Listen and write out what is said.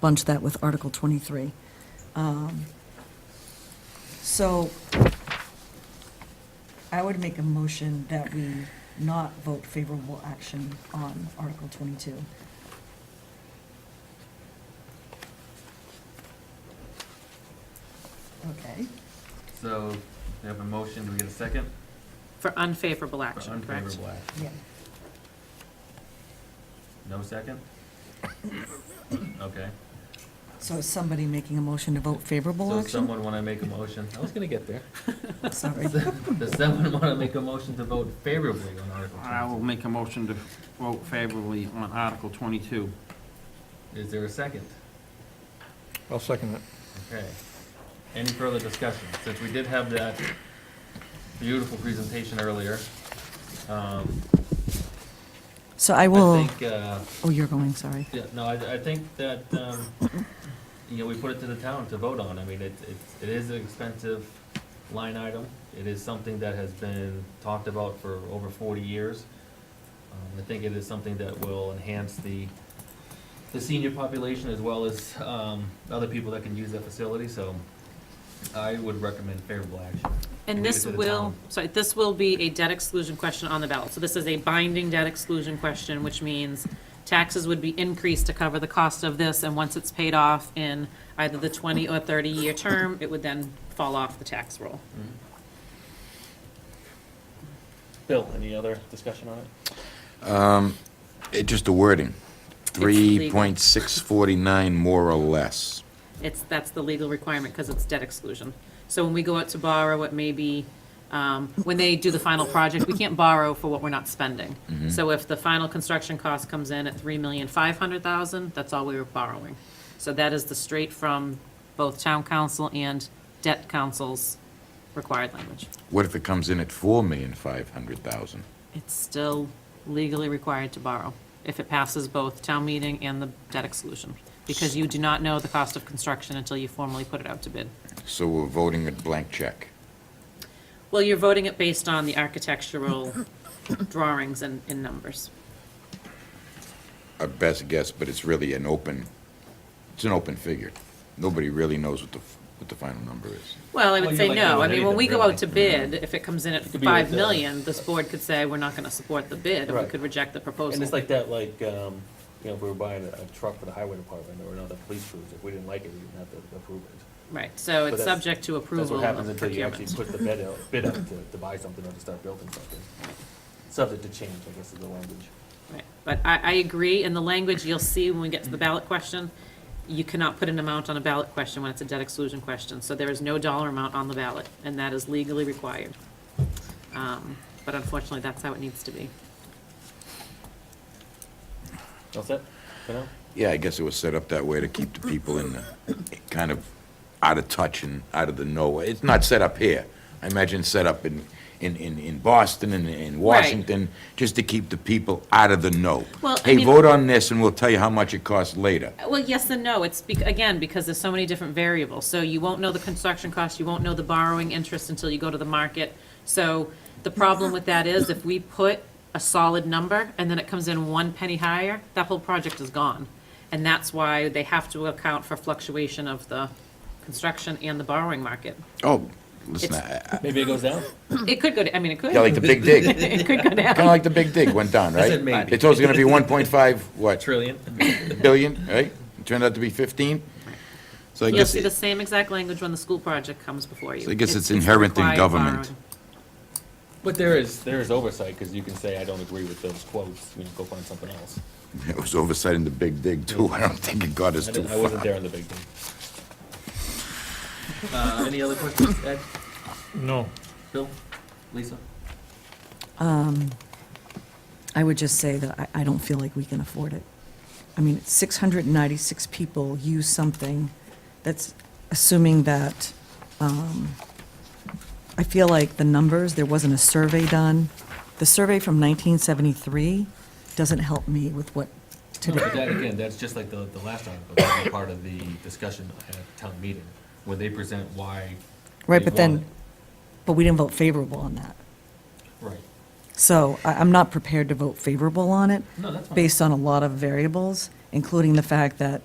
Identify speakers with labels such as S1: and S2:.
S1: bunch that with Article 23. Um, So I would make a motion that we not vote favorable action on Article 22. Okay.
S2: So, we have a motion, do we get a second?
S3: For unfavorable
S2: For
S3: action, correct?
S2: unfavorable action.
S1: Yeah.
S2: No second? Okay.
S1: So is somebody making a motion to vote favorable
S2: So
S1: action?
S2: someone want to make a motion? I was going to get there.
S1: Sorry.
S2: Does someone want to make a motion to vote favorably on Article
S4: I will
S2: 22?
S4: make a motion to vote favorably on Article 22.
S2: Is there a second?
S5: I'll second that.
S2: Okay. Any further discussion? Since we did have that beautiful presentation earlier, um,
S1: So I
S2: I
S1: will,
S2: think, uh,
S1: oh, you're going, sorry.
S2: Yeah, no, I, I think that, um, you know, we put it to the town to vote on. I mean, it, it, it is an expensive line item. It is something that has been talked about for over forty years. Um, I think it is something that will enhance the, the senior population as well as, um, other people that can use that facility, so I would recommend favorable action.
S3: And this
S2: Leave it to the
S3: will,
S2: town.
S3: sorry, this will be a debt exclusion question on the ballot. So this is a binding debt exclusion question, which means taxes would be increased to cover the cost of this, and once it's paid off in either the 20 or 30-year term, it would then fall off the tax roll.
S2: Bill, any other discussion on it?
S6: It, just the wording, three
S3: legal.
S6: point six forty-nine more or less.
S3: It's, that's the legal requirement because it's debt exclusion. So when we go out to borrow, it may be, um, when they do the final project, we can't borrow for what we're not spending. So if the final construction cost comes in at three million five hundred thousand, that's all we were borrowing. So that is the straight from both town council and debt council's required language.
S6: What if it comes in at four million five hundred thousand?
S3: It's still legally required to borrow if it passes both town meeting and the debt exclusion. Because you do not know the cost of construction until you formally put it out to bid.
S6: So we're voting a blank check.
S3: Well, you're voting it based on the architectural drawings and, and numbers.
S6: A best guess, but it's really an open, it's an open figure. Nobody really knows what the, f- what the final number is.
S3: Well,
S2: Well,
S3: I would
S2: you
S3: say
S2: like
S3: no.
S2: doing
S3: I mean, when we
S2: anything,
S3: go out to
S2: really.
S3: bid, if it comes in at
S2: could be like
S3: five
S2: the-
S3: million, this board could say, we're not gonna support the bid, and we
S2: Right.
S3: could reject the
S2: And it's
S3: proposal.
S2: like that, like, um, you know, if we were buying a, a truck for the highway department or another police cruiser, if we didn't like it, we didn't have to approve it.
S3: Right, so it's
S2: that's-
S3: subject to
S2: That's
S3: approval
S2: what happens
S3: of
S2: until you actually
S3: procurement.
S2: put the bid out, bid up to, to buy something or to start building something. Subject to change, I guess is the language.
S3: Right. But I, I agree, and the language you'll see when we get to the ballot question, you cannot put an amount on a ballot question when it's a debt exclusion question, so there is no dollar amount on the ballot, and that is legally required. Um, But unfortunately, that's how it needs to be.
S2: All set? For now?
S6: Yeah, I guess it was set up that way to keep the people in, the kind of out of touch and out of the know. It's not set up here. I imagine it's set up in, in, in, in Boston and in Washington, just to keep the people out of the know.
S3: Well, I
S6: Hey,
S3: mean-
S6: vote on this and we'll tell you how much it costs later.
S3: Well, yes and no. It's, bec- again, because there's so many different variables. So you won't know the construction cost, you won't know the borrowing interest until you go to the market. So the problem with that is if we put a solid number and then it comes in one penny higher, that whole project is gone. And that's why they have to account for fluctuation of the construction and the borrowing market.
S6: Oh, listen,
S3: It's-
S6: I- I-
S2: Maybe it goes down?
S3: It could go, to- I mean, it could.
S6: yeah, like the Big Dig, kind
S3: It could go down.
S6: of like the Big Dig went down, right?
S2: said maybe.
S6: They told us it's gonna be one point five, what,
S2: Trillion.
S6: billion, right? It turned out to be fifteen. So I
S3: You'll
S6: guess,
S3: see the
S6: it-
S3: same exact language when the school project comes before you.
S6: So I guess it's inherent in
S3: required
S6: government.
S3: borrowing.
S2: But there is, there is oversight, because you can say, I don't agree with those quotes, you know, go find something else.
S6: it was oversight in the Big Dig too. I don't think it got us
S2: I
S6: too
S2: didn't, I
S6: far.
S2: wasn't there on the big thing. Uh, any other questions, Ed,
S5: No.
S2: Bill, Lisa?
S1: I would just say that I, I don't feel like we can afford it. I mean, 696 people use something that's assuming that, um, I feel like the numbers, there wasn't a survey done. The survey from 1973 doesn't help me with what
S2: No,
S1: today.
S2: but that, again, that's just like the, the last article, that was part of the discussion at town meeting, where they present why.
S1: Right,
S2: they
S1: but then,
S2: want
S1: but we didn't vote favorable on that.
S2: it. Right,
S1: So I, I'm not prepared to vote favorable on it.
S2: no, that's fine.
S1: based on a lot of variables, including the fact that